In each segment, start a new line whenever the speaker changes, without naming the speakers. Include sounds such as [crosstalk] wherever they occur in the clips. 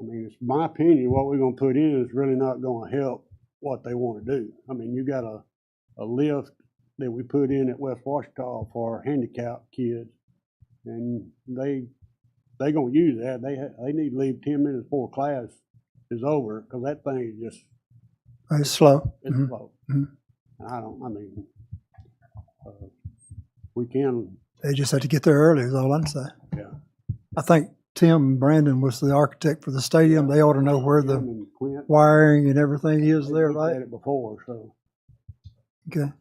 I mean, it's my opinion, what we're gonna put in is really not gonna help what they wanna do. I mean, you got a, a lift that we put in at West Washita for handicapped kids. And they, they gonna use that. They, ha- they need to leave ten minutes before class is over, cause that thing is just,
It's slow.
it's
Mhm.
slow. And
Mhm.
I don't, I mean, uh, we can,
They just had to get there early, is all I'm saying.
Yeah.
I think Tim Brandon was the architect for the stadium. They ought to know where
Tim
the
and Clint,
wiring and everything is
they
there,
looked at
right?
it before, so.
Okay,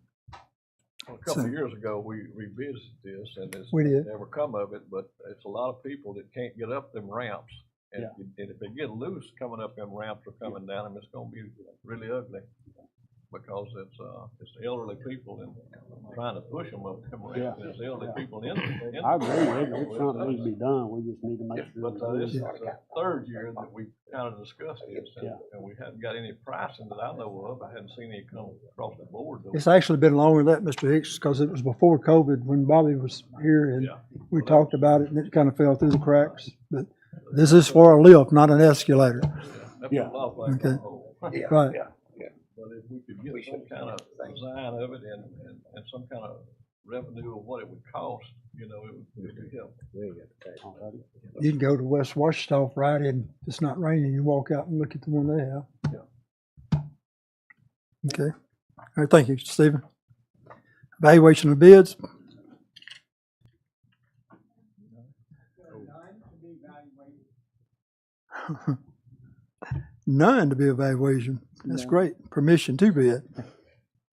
A couple
So-
of years ago, we revisited this and it's
we did.
never come of it, but it's a lot of people that can't get up them ramps. And if you- and if they get loose coming up them ramps or coming down them, it's gonna be really ugly. Because it's, uh, it's elderly people and trying to push them up them ramps,
Yeah.
and it's elderly people in. in-
I agree with you. It's something that needs to be done. We just need to make
Yeah,
sure.
But uh,
we
this is
do it.
the third year that we kind of discussed this, and, and we haven't got any pricing that I know of, I haven't seen any come across the board. though.
It's actually been longer than that, Mr. Hicks, because it was before COVID when Bobby was here and
Yeah.
we talked about it and it kind of fell through the cracks. But this is for a lift, not an escalator.
That put
Yeah.
a lot of things on hold.
Right.
But if we could get some kind of design of it and, and, and some kind of revenue of what it would cost, you know, it would, it would help.
Alrighty.
You can go to West Washita Friday and if it's not raining, you walk out and look at the one they have. Okay, all right, thank you, Stephen. Evaluation of bids, [laughs] none to be evaluation, that's
No.
great, permission to bid. Mr.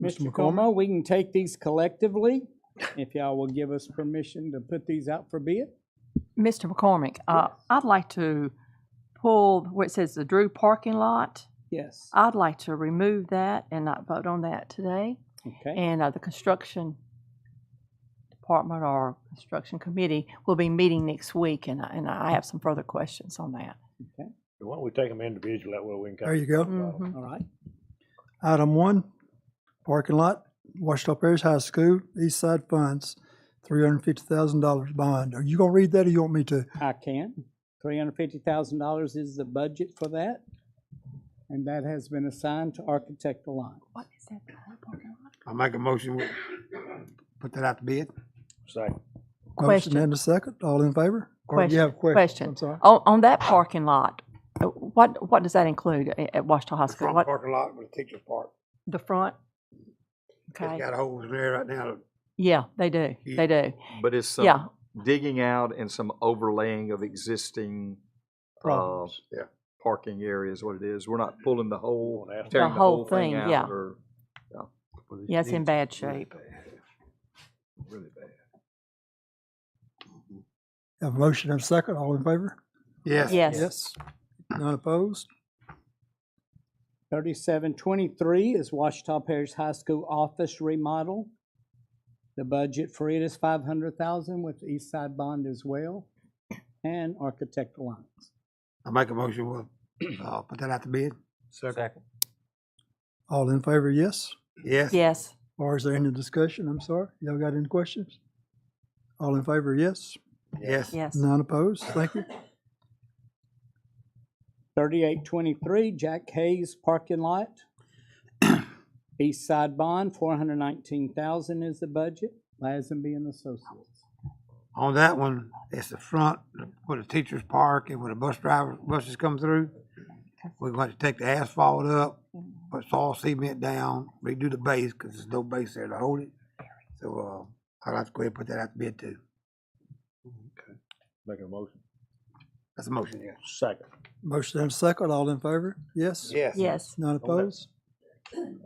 Mr.
McCormick,
Como, we can take these collectively if y'all will give us permission to put these out for bid.
Mr. McCormick, uh, I'd like to pull where it says the Drew parking lot.
Yes.
I'd like to remove that and not vote on that today.
Okay.
And uh, the construction department or construction committee will be meeting next week, and I, and I have some further questions on that.
Why don't we take them individually, that way we can.
there you go.
Mhm.
All right.
Item one, parking lot, Washita Parish High School, East Side Funds, three hundred and fifty thousand dollars bond. Are you gonna read that or you want me to?
I can. Three hundred fifty thousand dollars is the budget for that. And that has been assigned to Architect Alliance.
What is that? parking lot?
I make a motion, we put that out to bid.
Second.
Motion
Question.
and a second, all in favor? Or you have questions?
Question.
I'm sorry.
On, on that parking lot, uh, what, what does that include a- at Washita High
The
School?
front
What,
parking lot with the teacher's park.
the front?
It's
Okay,
got holes in there right now.
yeah, they do,
Ye-
they do,
But it's some
yeah.
digging out and some overlaying of existing uh,
Problems.
Yeah.
parking area is what it is. We're not pulling the whole,
Won't ask
tearing
The
the
whole
whole thing
thing, yeah.
out or
Yeah, it's in bad shape.
really bad.
Have a motion and a second, all in favor?
Yes.
Yes.
None opposed?
Thirty-seven twenty-three is Washita Parish High School office remodel. The budget for it is five hundred thousand with East Side Bond as well and Architect Alliance.
I make a motion, we'll, uh, put that out to bid.
Second.
All in favor, yes?
Yes.
Yes,
Or is there any discussion? I'm sorry. Y'all got any questions? All in favor, yes?
Yes.
yes.
None opposed? Thank you.
Thirty-eight twenty-three Jack Hayes parking lot. East Side Bond, four hundred nineteen thousand is the budget, Lazenby and Associates.
On that one, it's the front where the teacher's park and where the bus driver, buses come through. We're going to take the asphalt up, put all cement down, redo the base, cause there's no base there to hold it. So, uh, I'd like to go ahead and put that out to bid too.
Make a motion.
That's a motion, yeah.
Second.
Motion and a second, all in favor, yes?
Yes.
Yes.
None opposed?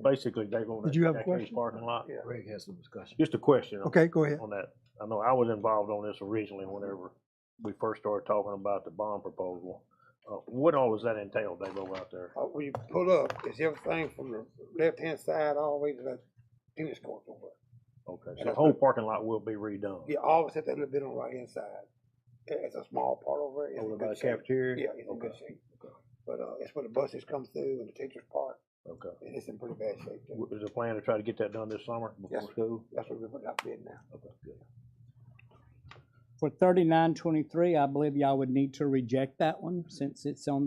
Basically, they want.
Did you have a question?
Parking lot.
Yeah.
Greg has some discussion. Just a question. on-
Okay, go ahead.
On that, I know I was involved on this originally whenever we first started talking about the bond proposal. Uh, what all does that entail, They go out there?
Uh, when you pull up, it's everything from the left-hand side all the way to the tennis court over.
Okay, so the whole parking lot will be redone?
You always have that little bit on the right-hand side. It- It's a small part over it. It's
Over
in
by the
good shape.
cafeteria?
Yeah, it's in good
Okay,
shape. But, uh, it's where the buses come through and the teachers park,
Okay.
and it's in pretty bad shape. too.
W- Is the plan to try to get that done this summer
Yes,
before
sir.
school?
That's what we're putting out bid now.
For thirty-nine twenty-three, I believe y'all would need to reject that one since it's on